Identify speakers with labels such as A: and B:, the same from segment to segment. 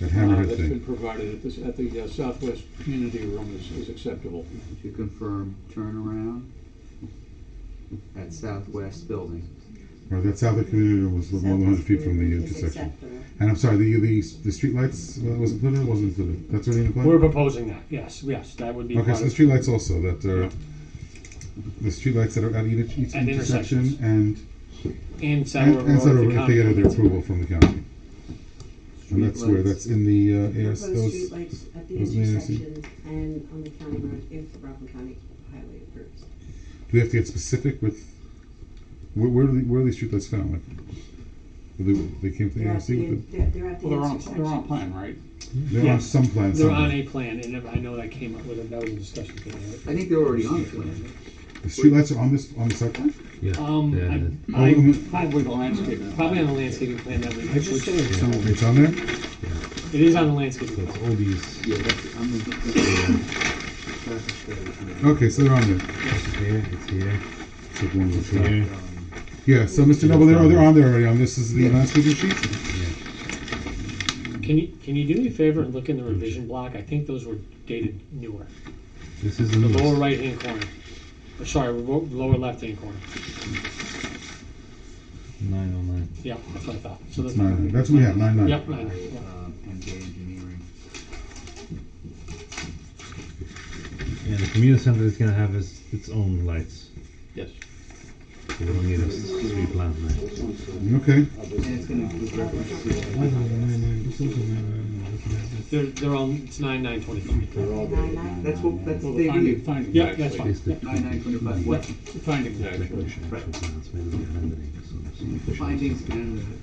A: That
B: uh,
A: hammerhead
B: that's been
A: thing.
B: provided at this, at the uh, Southwest Community Room is, is acceptable.
C: To confirm turnaround at Southwest Building.
A: Right, that's how the community was the one hundred feet from the intersection. And I'm sorry, the, the, the streetlights uh, was included or wasn't included? That's already in the plan?
D: We're proposing that, yes, yes, that would be
A: Okay,
D: part
A: so the
D: of,
A: streetlights also, that are, the streetlights that are at each, each
D: At
A: intersection
D: intersections.
A: and,
D: and Saddle
A: and,
D: Road.
A: and sort
D: to
A: of if they get
D: Concord.
A: their approval from the county. And that's where,
C: Streetlights.
A: that's in the, uh, AS,
E: Proposed
A: those,
E: streetlights at the
A: those may not see.
E: intersections and on the county road if the Rockland County Highway approves.
A: do we have to get specific with, where, where are the, where are these streetlights found? Like, were they, they came from the
E: They're at
A: ARC
E: the,
A: with
E: in- they're, they're at the
B: Well, they're on, they're on a
E: intersections.
B: plan, right?
A: the, they're on
D: Yes.
A: some plan
D: They're on
A: somewhere.
D: a plan, and I know that came up with, a- that was a discussion. today, right?
C: I think they're already on the plan.
A: The streetlights are on this, on the site plan?
D: Um, I,
A: Oh,
D: I,
A: mm,
B: Probably the landscaping.
D: probably on the landscaping plan that we, which, it
A: It's on there?
D: is on the landscaping plan.
F: All these
C: Yeah, that's, I'm in. traffic study.
A: Okay, so they're on there.
F: here, it's here,
A: Took one of
F: it's
A: the track.
F: here.
C: Um,
A: Yeah, so Mr. Noble, they're, oh, they're on there already, on this is the landscaping sheet?
D: Can you, can you do me a favor and look in the revision block? I think those were dated newer.
F: This is the
D: The lower
F: newest.
D: right-hand corner, or sorry, lo- lower left-hand corner.
F: Nine oh nine.
D: Yeah, that's what I thought. So that's.
A: Nine, that's what we have, nine, nine.
D: Yep, nine, yeah.
C: uh, MJ Engineering.
F: Yeah, the community center is gonna have its, its own lights.
B: Yes.
F: So we don't need a s- street lamp now.
A: Okay,
C: And it's gonna include reference to.
D: They're, they're all, it's nine, nine, twenty-five.
E: Nine, nine,
C: That's what, that's
B: Well,
C: what
B: the
C: they
B: finding,
C: do.
B: finding.
D: Yeah, that's fine.
F: It's the
C: Nine nine twenty-five, what,
B: The findings, actually.
F: declaration of actual plans made by rendering, so it's not
C: the
F: official.
C: findings and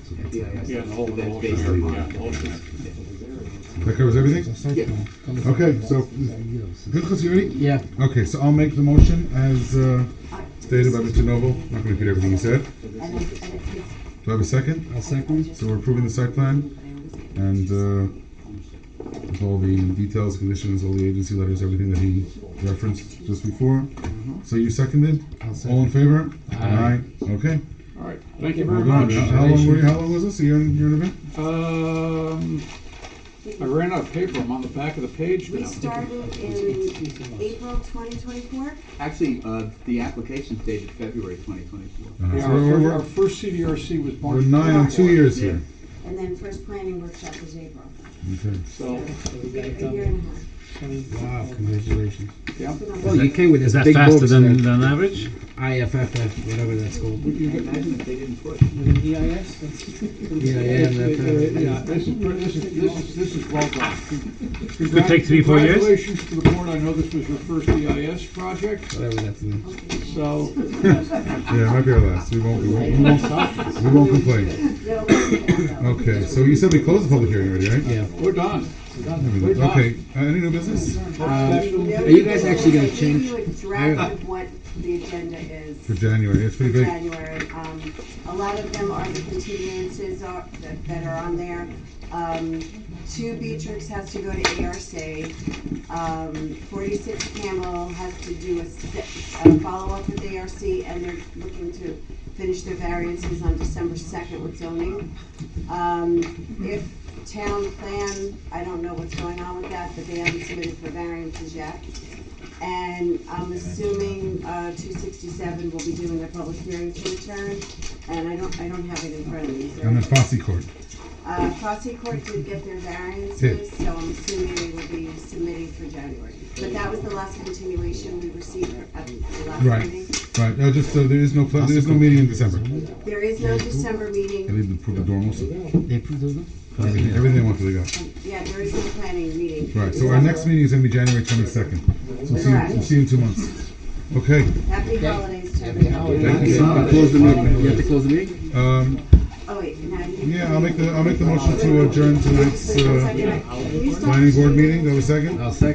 F: It's
C: the
F: a-
C: FEIS.
B: Yeah, the whole, the whole.
C: That's based
B: thing.
C: on-
B: Yeah, the whole thing.
A: that covers everything?
C: Yeah.
A: Okay, so,
F: Yes,
A: good, Chris, you ready?
F: Yeah.
A: Okay, so I'll make the motion as uh,
E: nine.
A: stated by Mr. Noble. I'm not gonna repeat everything he said.
E: And I, and I think
A: Do I have a second? I'll second. So we're approving the site plan
E: I always say-
A: and uh, with all the details, conditions, all the agency letters, everything that he referenced just before. So you seconded? All in favor? Aye. Okay.
B: All right, thank you
A: Well
B: very
A: done.
B: much.
A: How how long were you, how long was this? A year and, year and a bit?
B: Um, I ran out of paper, I'm on the back of the page
E: We
B: now.
E: started in April twenty twenty-four.
C: Actually, uh, the application's dated February twenty twenty-four.
A: Uh-huh.
B: Yeah,
A: So
B: Our
A: we're-
B: fir- our
A: we're-
B: first CDRC was March.
A: We're nine and two years
C: Yeah.
A: here.
E: And then first planning workshop was April,
A: Okay.
B: So,
E: a year and a half.
G: Wow, congratulations.
B: yeah,
G: Well, you came with
F: Is that
G: big
F: faster
G: books
F: than,
G: then.
F: than average?
G: IFFF, whatever that's called.
B: you got-
C: Imagine if they didn't push.
D: EIS?
G: Yeah, yeah, that, uh,
B: Yeah, this is, this is, this is, this is well done.
F: Could take three, four years?
B: Congratulations to the board, I know this was your first EIS project,
G: whatever that's. in.
B: so,
A: Yeah, it might be our last. We won't, we won't, we won't, we won't complain.
E: No, no, no.
A: Okay, so you said we closed the public hearing already, right?
G: Yeah.
B: we're done. We're done.
A: Okay, uh, any new business?
E: No,
B: Ah,
G: Are you guys actually gonna
E: I gave
G: change-
E: you a draft of what the agenda is.
A: For January, it's
E: for
A: pretty big.
E: January. Um, a lot of them are the continuances are, that, that are on there. Um, two Beatrix has to go to ARC. Um, forty-six Camel has to do a, se- a follow-up with ARC, and they're looking to finish their variances on December second with zoning. Um, if town plan, I don't know what's going on with that, but they haven't submitted for variances yet. And I'm assuming, uh, two sixty-seven will be doing their public hearing to return, and I don't, I don't have it in front of me, so.
A: And then Fossey Court.
E: Uh, Fossey Court did get their variances, so I'm assuming they will be submitting for January. But that was the last continuation we received at the last
A: Right.
E: meeting.
A: Right, no, just, uh, there is no, pla- there is no meeting in December.
E: There is no December
A: They
E: meeting,
A: need to approve the dorm also.
G: They approved those?
A: Everything, everything wants to go.
E: yeah, there is no planning meeting. in
A: Right, so our next
E: December.
A: meeting is gonna be January twenty-second. So we'll see, you- we'll see you in two months. Okay,
E: Happy holidays to everyone.
A: thank you.
C: Uh,
A: Close the meeting.
C: You have to close the meeting?
A: Um,
E: Oh, wait, now you.
A: yeah, I'll make the, I'll make the motion to adjourn tonight's, uh,
E: Can you stop?
A: planning board meeting. Do I have a second?
G: I'll second.